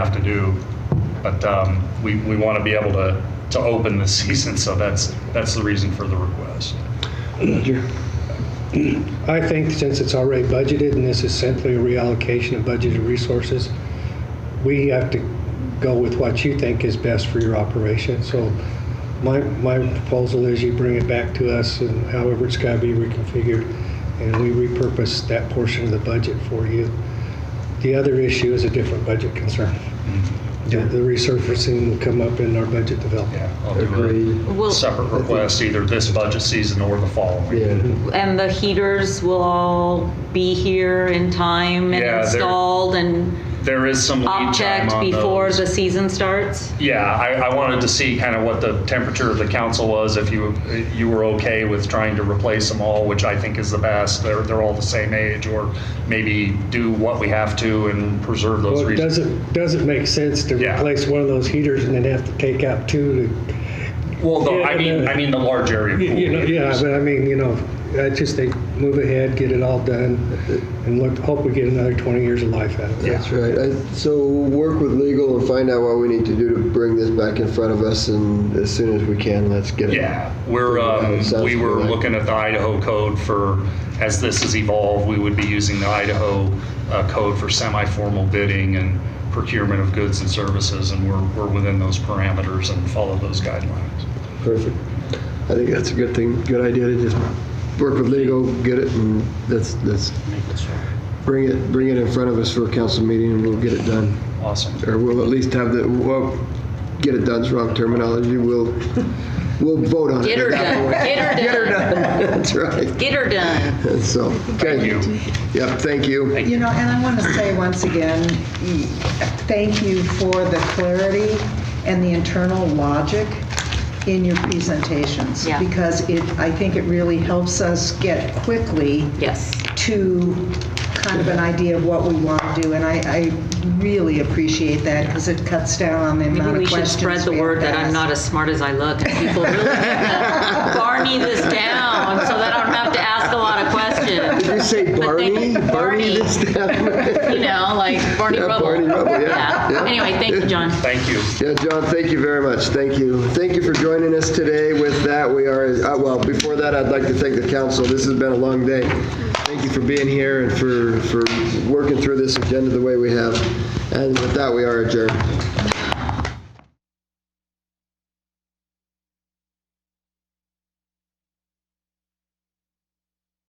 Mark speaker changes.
Speaker 1: do. But um, we, we want to be able to, to open the season, so that's, that's the reason for the request.
Speaker 2: Roger. I think since it's already budgeted and this is simply a reallocation of budgeted resources, we have to go with what you think is best for your operation. So my, my proposal is you bring it back to us and however it's got to be reconfigured, and we repurpose that portion of the budget for you. The other issue is a different budget concern. The the resurfacing will come up in our budget development.
Speaker 1: Yeah, I'll do
Speaker 3: Agreed.
Speaker 1: a
Speaker 4: Will,
Speaker 1: separate request, either this budget season or the following.
Speaker 3: Yeah.
Speaker 4: and the heaters will all be here in time and
Speaker 1: Yeah, they're-
Speaker 4: installed and
Speaker 1: There is some lead time
Speaker 4: object
Speaker 1: on
Speaker 4: before
Speaker 1: those.
Speaker 4: the season starts?
Speaker 1: Yeah, I, I wanted to see kind of what the temperature of the council was, if you, you were okay with trying to replace them all, which I think is the best. They're, they're all the same age, or maybe do what we have to and preserve those
Speaker 2: Well, it
Speaker 1: reasons.
Speaker 2: doesn't, doesn't make sense to
Speaker 1: Yeah.
Speaker 2: replace one of those heaters and then have to take out two to,
Speaker 1: Well, no,
Speaker 2: yeah,
Speaker 1: I mean,
Speaker 2: and, uh,
Speaker 1: I mean the large area pool.
Speaker 2: you know, yeah, but I mean, you know, I just think move ahead, get it all done, and look, hope we get another 20 years of life out of it.
Speaker 3: That's right. I- So work with legal and find out what we need to do to bring this back in front of us, and as soon as we can, let's get it.
Speaker 1: Yeah, we're, um,
Speaker 3: Sounds
Speaker 1: we were
Speaker 3: good.
Speaker 1: looking at the Idaho code for, as this has evolved, we would be using the Idaho uh, code for semi-formal bidding and procurement of goods and services, and we're, we're within those parameters and follow those guidelines.
Speaker 3: Perfect. I think that's a good thing, good idea to just work with legal, get it, and that's, that's, bring it, bring it in front of us for a council meeting, and we'll get it done.
Speaker 1: Awesome.
Speaker 3: Or we'll at least have the, well, get it done's wrong terminology, we'll, we'll vote on it.
Speaker 4: Get
Speaker 3: at
Speaker 4: her
Speaker 3: that
Speaker 4: done,
Speaker 3: point.
Speaker 4: get her done,
Speaker 3: That's right.
Speaker 4: get her done.
Speaker 3: And so,
Speaker 1: Thank
Speaker 3: okay.
Speaker 1: you.
Speaker 3: Yep, thank you.
Speaker 5: You know, and I want to say once again, y- thank you for the clarity and the internal logic in your presentations.
Speaker 4: Yeah.
Speaker 5: Because it, I think it really helps us get quickly
Speaker 4: Yes.
Speaker 5: to kind of an idea of what we want to do. And I, I really appreciate that because it cuts down on the
Speaker 4: Maybe
Speaker 5: amount
Speaker 4: we
Speaker 5: of
Speaker 4: should
Speaker 5: questions we
Speaker 4: spread the word
Speaker 5: have to
Speaker 4: that I'm
Speaker 5: ask.
Speaker 4: not as smart as I look, and people really need to Barney this down, so that I don't have to ask a lot of
Speaker 3: Did you
Speaker 4: questions.
Speaker 3: say
Speaker 4: But thank-
Speaker 3: Barney? Barney
Speaker 4: Barney.
Speaker 3: this time?
Speaker 4: You know, like Barney
Speaker 3: Yeah,
Speaker 4: Rubble.
Speaker 3: Barney Rubble, yeah, yeah.
Speaker 4: Anyway, thank you, John.
Speaker 1: Thank you.
Speaker 3: Yeah, John, thank you very much. Thank you. Thank you for joining us today. With that, we are, uh, well, before that, I'd like to thank the council. This has been a long day. Thank you for being here and for, for working through this agenda the way we have. And with that, we are adjourned.